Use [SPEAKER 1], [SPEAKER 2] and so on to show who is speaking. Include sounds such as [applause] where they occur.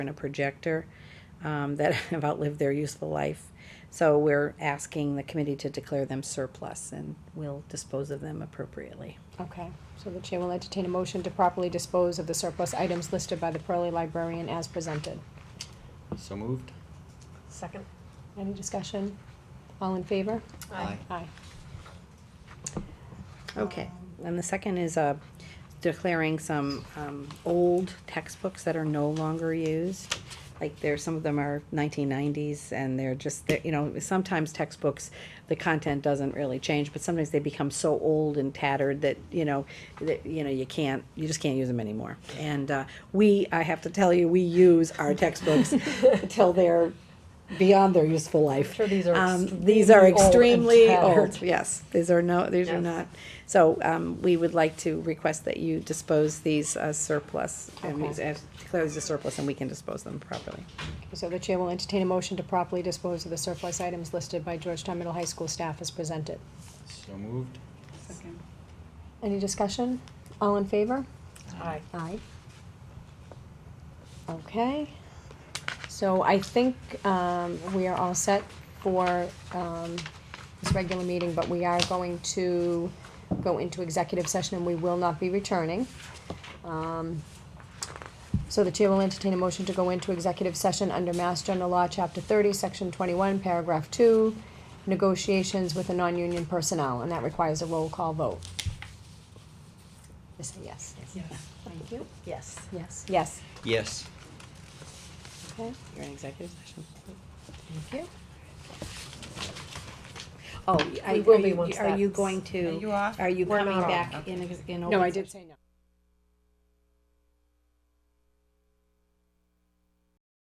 [SPEAKER 1] and a projector um, that [laughs] have outlived their useful life. So we're asking the committee to declare them surplus and we'll dispose of them appropriately.
[SPEAKER 2] Okay, so the chair will entertain a motion to properly dispose of the surplus items listed by the Pearly Librarian as presented.
[SPEAKER 3] So moved?
[SPEAKER 4] Second.
[SPEAKER 2] Any discussion? All in favor?
[SPEAKER 4] Aye.
[SPEAKER 2] Aye.
[SPEAKER 1] Okay, and the second is, uh, declaring some, um, old textbooks that are no longer used. Like there's, some of them are nineteen nineties and they're just, they're, you know, sometimes textbooks, the content doesn't really change, but sometimes they become so old and tattered that, you know, that, you know, you can't, you just can't use them anymore. And, uh, we, I have to tell you, we use our textbooks until they're beyond their useful life.
[SPEAKER 4] sure these are
[SPEAKER 1] Um, these are extremely
[SPEAKER 4] extremely old and tattered.
[SPEAKER 1] old, yes, these are no, these are
[SPEAKER 4] Yes.
[SPEAKER 1] not. So, um, we would like to request that you dispose these as surplus, and we
[SPEAKER 2] Okay.
[SPEAKER 1] as- declare these as surplus, and we can dispose them properly.
[SPEAKER 2] Okay, So the chair will entertain a motion to properly dispose of the surplus items listed by Georgetown Middle High School staff as presented.
[SPEAKER 3] So moved?
[SPEAKER 2] Any discussion? All in favor?
[SPEAKER 4] Aye.
[SPEAKER 2] Aye. Okay, so I think, um, we are all set for, um, this regular meeting, but we are going to go into executive session and we will not be returning. Um, so the chair will entertain a motion to go into executive session under Mass General Law, Chapter thirty, Section twenty-one, Paragraph two, negotiations with a non-union personnel, and that requires a roll call vote. I say yes. Thank you.
[SPEAKER 4] Yes.
[SPEAKER 2] Yes. Yes.
[SPEAKER 3] Yes.
[SPEAKER 2] Okay,
[SPEAKER 1] You're in executive session.
[SPEAKER 2] thank you.
[SPEAKER 1] Oh,
[SPEAKER 4] We
[SPEAKER 1] I,
[SPEAKER 4] will
[SPEAKER 1] are
[SPEAKER 4] be
[SPEAKER 1] you,
[SPEAKER 4] once
[SPEAKER 1] are you
[SPEAKER 4] that's-
[SPEAKER 1] going to? Oh, Are you
[SPEAKER 4] We're
[SPEAKER 1] coming
[SPEAKER 4] not on.
[SPEAKER 1] back in, ex- in?
[SPEAKER 2] No,
[SPEAKER 1] open
[SPEAKER 2] I did say no.